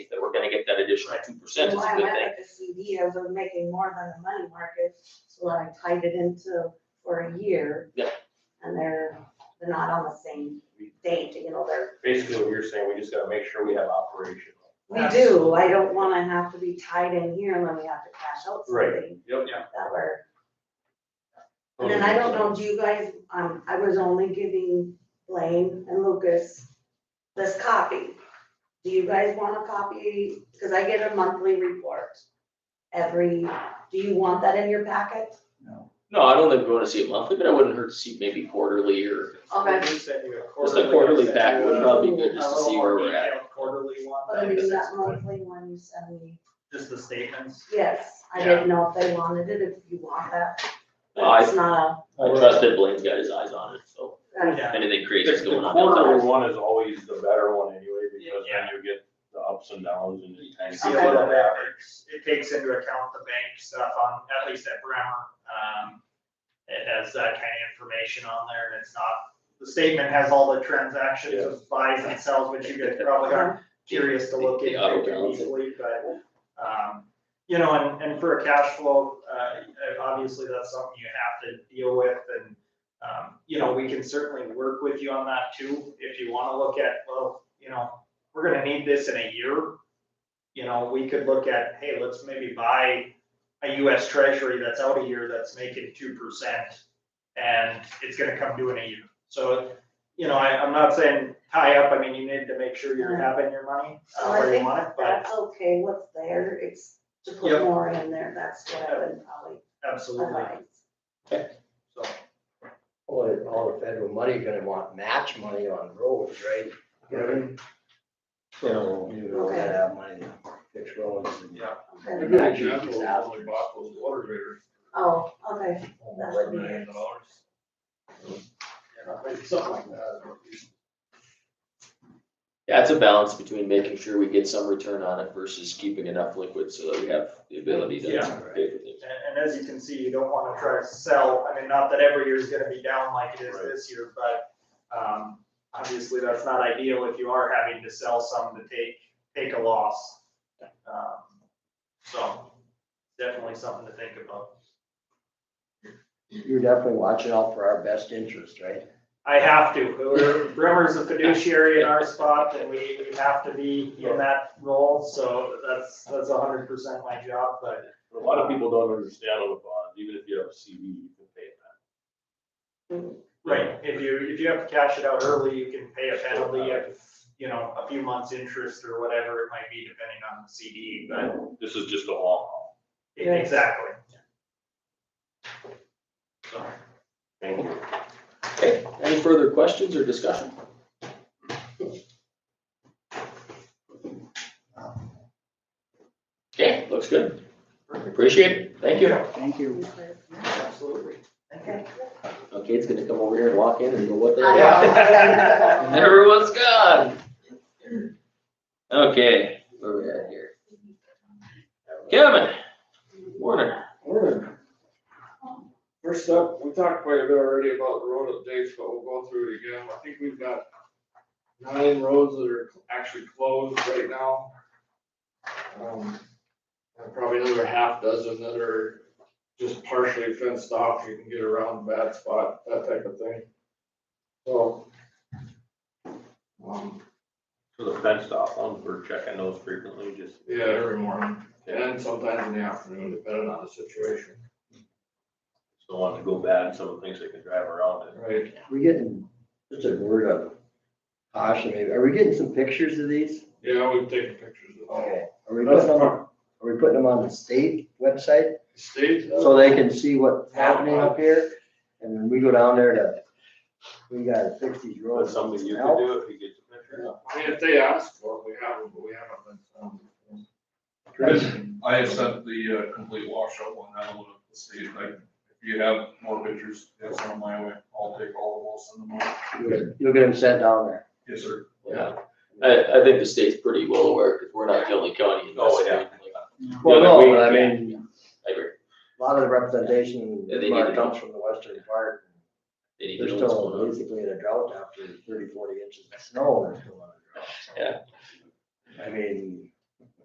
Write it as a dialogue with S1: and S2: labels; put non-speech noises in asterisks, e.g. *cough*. S1: we're gonna get that additional two percent is
S2: Well,
S1: a
S2: I
S1: good
S2: went
S1: thing.
S2: with The CD, I was making more than the money market, so I tied it into for a year.
S1: Yeah.
S2: And they're, they're not on the same date, you know, they're,
S3: Basically, what you're saying, we just gotta make sure we have operational.
S2: we do, I don't wanna have to be tied in here and then we have to cash out
S3: Right.
S2: something
S3: Yep.
S2: that we're. And then I don't know, do you guys, um, I was only giving Blaine and Lucas this copy. Do you guys want a copy? Cause I get a monthly report every, do you want that in your packet?
S1: No, I don't think we wanna see it monthly, but I wouldn't hurt to see maybe quarterly or
S2: Okay,
S4: We sent you a
S1: just
S4: quarterly.
S1: a quarterly
S4: I sent
S1: back
S4: you
S1: would
S4: a-
S1: probably be good
S4: a
S1: just to
S4: little
S1: see
S4: more
S1: where we're at.
S4: detailed Quarterly one.
S2: but I
S4: that
S2: mean,
S4: just
S2: that
S4: explained-
S2: monthly one you send me,
S4: Just the statements.
S2: yes, I didn't know if they wanted it, if you want that.
S1: No, I,
S2: It's not
S1: I trust that Blaine's got his eyes on it, so
S2: a, uh,
S1: if anything
S3: The
S1: crazy is going
S3: the
S1: on.
S3: quarterly one is always the better one anyway, because then
S4: Yeah.
S3: you get the ups and downs and.
S4: You
S3: the
S4: can
S3: time.
S4: see a little bit, it's- it takes into account the bank stuff on, at least at Bremer. Um, it has that kind of information on there and it's not, the statement has all the transactions of buys and sells, which you guys
S1: *laughs*
S4: probably aren't curious to look
S1: The auto
S4: into too
S1: balance.
S4: easily, but, um, you know, and, and for a cash flow, uh, obviously that's something you have to deal with and, um, you know, we can certainly work with you on that too, if you wanna look at, well, you know, we're gonna need this in a year. You know, we could look at, hey, let's maybe buy a US Treasury that's out a year that's making two percent and it's gonna come due in a year. So, you know, I, I'm not saying tie up, I mean, you need to make sure you're having your money uh,
S2: So I
S4: where you
S2: think
S4: want it, but
S2: that's okay, what's there, it's to put
S4: Yep.
S2: more in there, that's what I would probably
S4: absolutely,
S2: advise.
S4: so.
S5: All the, all the federal money gonna want match money on roads, right? You know, So you don't
S2: Okay.
S5: have money to fix roads and.
S2: Okay.
S3: bought those water meters.
S2: Oh, okay, that would be it.
S3: Something like that.
S1: Yeah, it's a balance between making sure we get some return on it versus keeping enough liquid so that we have the ability to
S4: Yeah.
S1: pay for things.
S4: And, and as you can see, you don't wanna try to sell, I mean, not that every year is gonna be down like it is this year, but, um, obviously, that's not ideal if you are having to sell some to take, take a loss. Um, So, definitely something to think about.
S5: You're definitely watching out for our best interest, right?
S4: I have to, We're- Bremer's a fiduciary in our spot, and we, we have to be in that role, so that's, that's hundred percent my job, but
S3: A lot of people don't understand on the bonds, even if you have a CD, you can pay that.
S4: Right, if you, if you have to cash it out early, you can pay a penalty of, you know, a few months' interest or whatever it might be, depending on the CD, but,
S3: This is just a long haul.
S2: Yeah.
S4: exactly. So,
S3: Thank you.
S1: Okay, any further questions or discussion? Okay, looks good. Appreciate it. Thank you.
S6: Thank you.
S4: absolutely.
S2: Okay.
S1: Okay, it's gonna come over here and walk in and go, what the hell?
S2: I
S4: *laughs*
S2: know.
S1: Everyone's gone. Okay, where we at here? Kevin, Warner.
S7: Morning. First up, we talked quite a bit already about the road updates, but we'll go through it again. I think we've got nine roads that are actually closed right now. Um, And probably another half dozen that are just partially fenced off. You can get around a bad spot, that type of thing. So. um,
S3: For the fenced off ones, we're checking those frequently, just.
S7: Yeah, every morning and sometimes in the afternoon, depending on the situation.
S3: Don't want to go bad, and someone thinks they can drive around it.
S7: Right.
S5: We getting, just a word of caution, maybe, are we getting some pictures of these?
S7: Yeah, we've taken pictures of all.
S5: Are we putting them, are we putting them on the state website
S7: State. uh,
S5: so they can see what's happening up here? And then we go down there to, we gotta fix these roads.
S3: That's something you could do if you get the picture.
S7: I mean, if they ask for it, we have them, but we haven't been. found.
S8: I have sent the uh, complete washout one out of the state, like, if you have more pictures, that's on my way, I'll take all of those in the morning.
S5: You'll- You'll get them sent down there.
S8: Yes, sir.
S1: Yeah, I, I think the state's pretty well aware, because we're not the only county in this.
S3: Oh, yeah.
S5: Well,
S1: Yeah,
S5: no,
S1: we-
S5: but I mean,
S1: I agree.
S5: a lot of the representation
S1: Yeah, they need to
S5: comes from the western part.
S1: They need
S5: They're
S1: to know what's going
S5: still
S1: on.
S5: basically in a drought after 30, 40 inches of snow. they're still in a drought, so. I mean,